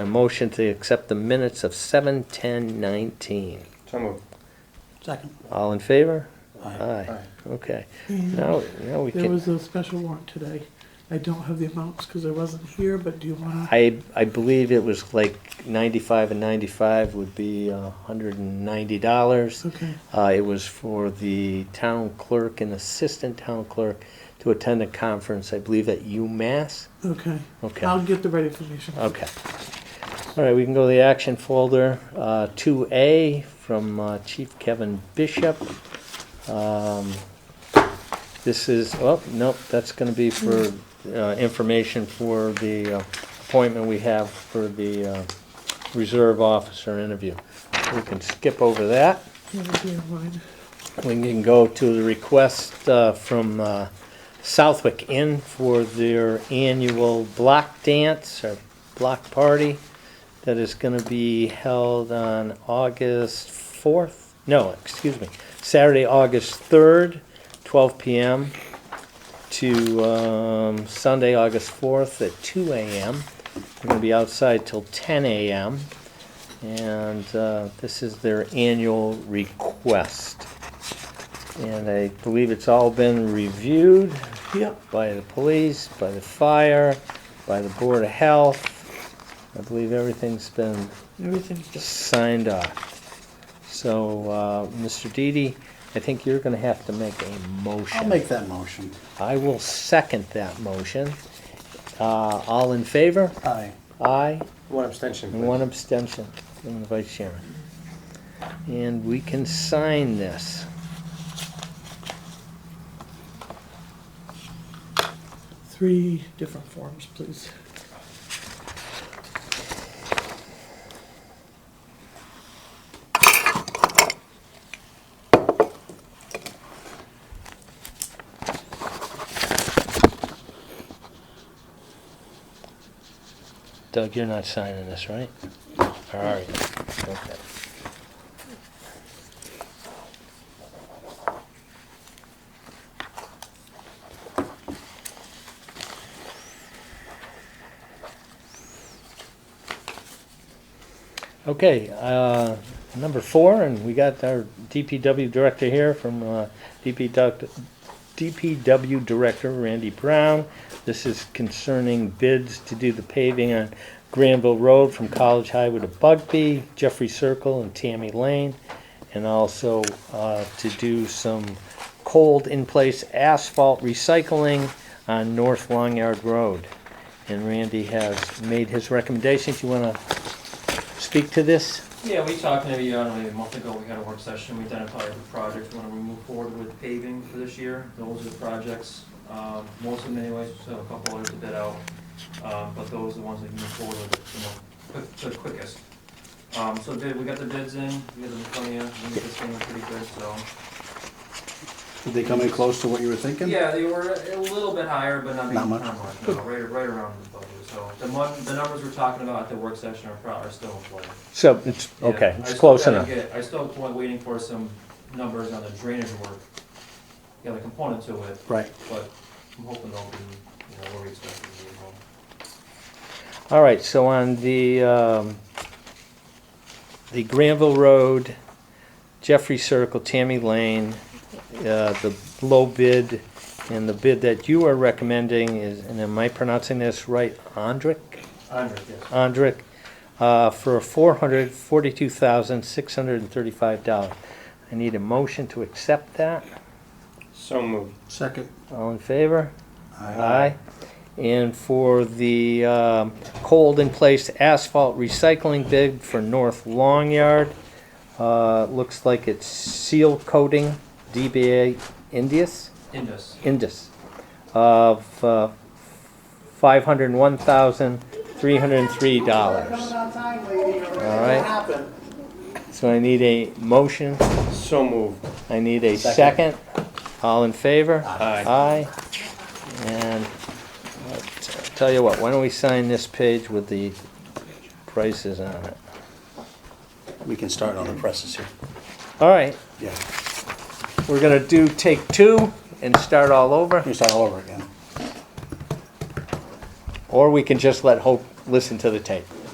a motion to accept the minutes of seven ten nineteen. So moved. Second. All in favor? Aye. Aye. Okay. And Now, now we There can, was a special warrant today. I don't have the amounts because I wasn't here, but do you want to? I, I believe it was like ninety-five and ninety-five would be a hundred and ninety dollars. Okay, Uh, it was for the town clerk and assistant town clerk to attend a conference, I believe at UMass. okay. Okay. Uh, I'll get the right information. Okay. All right, we can go to the action folder. Uh, 2A from uh, Chief Kevin Bishop. Um, This is, oh, nope, that's going to be for uh, information for the uh, appointment we have for the uh, reserve officer interview. We can skip over that. Yeah, it'll be in line. We can go to the request uh, from uh, Southwick Inn for their annual block dance or block party that is going to be held on August 4th, no, excuse me, Saturday, August 3rd, 12 PM to um, Sunday, August 4th at 2 AM. They're going to be outside till 10 AM. And uh, this is their annual request. And I believe it's all been reviewed Yep, by the police, by the fire, by the Board of Health. I believe everything's been everything's done. signed off. So, uh, Mr. Didi, I think you're gonna have to make a motion. I'll make that motion. I will second that motion. Uh, All in favor? Aye. Aye. One abstention, And one please. abstention from the vice chairman. And we can sign this. Three different forms, please. Doug, you're not signing this, right? All right, okay. Okay, uh, number four, and we got our DPW director here from uh, DP doc- DPW Director Randy Brown. This is concerning bids to do the paving on Granville Road from College Highway to Bugby, Jeffrey Circle, and Tammy Lane, and also uh, to do some cold in-place asphalt recycling on North Long Yard Road. And Randy has made his recommendations. You want to speak to this? Yeah, we talked maybe, I don't know, maybe a month ago, we had a work session, we identified the projects, we want to move forward with paving for this year. Those are the projects, um, most of them anyways, so a couple others to bid out, um, but those are the ones we can move forward with, you know, quick- the quickest. Um, so bid, we got the bids in, we got them plenty of, we got this thing pretty good, so. Did they come any close to what you were thinking? Yeah, they were a little bit higher, but not. Not much. Not much, no, right, right around the budget, so the mon, the numbers we're talking about at the work session are pro, are still in play. So, it's, okay, Yeah, I it's still close gotta enough. get- I still wa- waiting for some numbers on the drainage work, the other component to it, Right. but I'm hoping they'll be, you know, where we expect them to be. well. All right, so on the, um, the Granville Road, Jeffrey Circle, Tammy Lane, uh, the low bid, and the bid that you are recommending is, and am I pronouncing this right, Andrick? Andre, yes. Andrick, uh, for four hundred forty-two thousand, six hundred and thirty-five dollars. I need a motion to accept that. So moved. Second. All in favor? Aye. And for the um, cold in place asphalt recycling bid for North Long Yard, uh, looks like it's seal coating DBA Indus, Indus, Indus of uh, $501,303. All right, so I need a motion, So moved. I need a second. Second. All in favor? Aye. Aye. And uh, t- tell you what, why don't we sign this page with the prices on it? We can start on the presses here. All right, Yeah, we're gonna do take two and start all over, we can start all over again. or we can just let Hope listen to the tape.